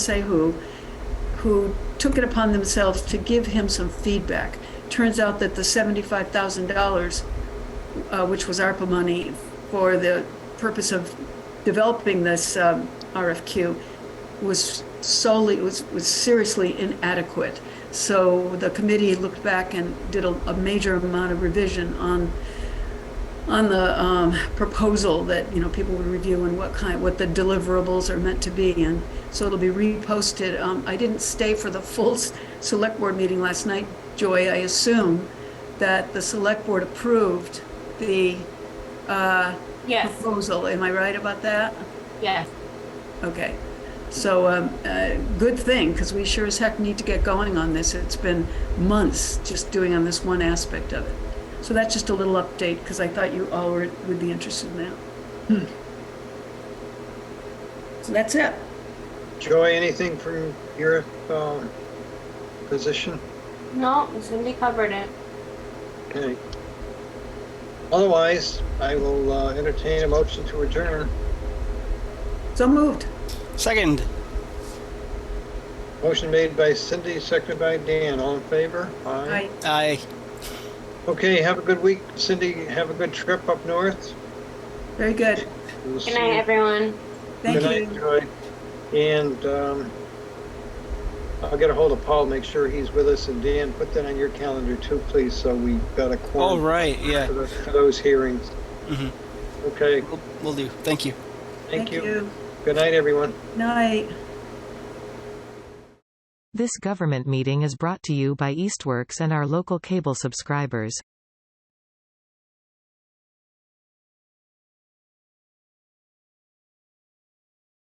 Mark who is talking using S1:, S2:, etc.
S1: say who, who took it upon themselves to give him some feedback. Turns out that the seventy-five thousand dollars, uh, which was ARPA money for the purpose of developing this um, RFQ, was solely was was seriously inadequate. So the committee looked back and did a, a major amount of revision on on the um, proposal that, you know, people would review and what kind, what the deliverables are meant to be. And so it'll be reposted. Um, I didn't stay for the full s- select board meeting last night, Joy. I assume that the select board approved the uh,
S2: Yes,
S1: proposal. Am I right about that?
S2: yes.
S1: Okay. So, um, uh, good thing, because we sure as heck need to get going on this. It's been months just doing on this one aspect of it. So that's just a little update, because I thought you all were, would be interested in that.
S3: Hmm.
S1: So that's it.
S3: Joy, anything from your um, position?
S2: No, Cindy covered it.
S3: Okay. Otherwise, I will uh, entertain a motion to adjourn.
S1: So moved.
S4: Second.
S3: Motion made by Cindy, seconded by Dan. All in favor?
S1: I,
S4: Aye.
S3: Okay, have a good week. Cindy, have a good trip up north.
S1: very good.
S3: We'll see
S2: Good night, everyone.
S1: Thank
S3: Good night,
S1: you.
S3: Joy. And um, I'll get a hold of Paul, make sure he's with us. And Dan, put that on your calendar too, please, so we've got a
S4: All
S3: quorum
S4: right.
S3: for
S4: Yeah.
S3: the- for those hearings.
S4: Mhm.
S3: Okay,
S4: We'll, we'll do. Thank you.
S3: thank you. Good night, everyone.
S1: Night.
S5: This government meeting is brought to you by Eastworks and our local cable subscribers.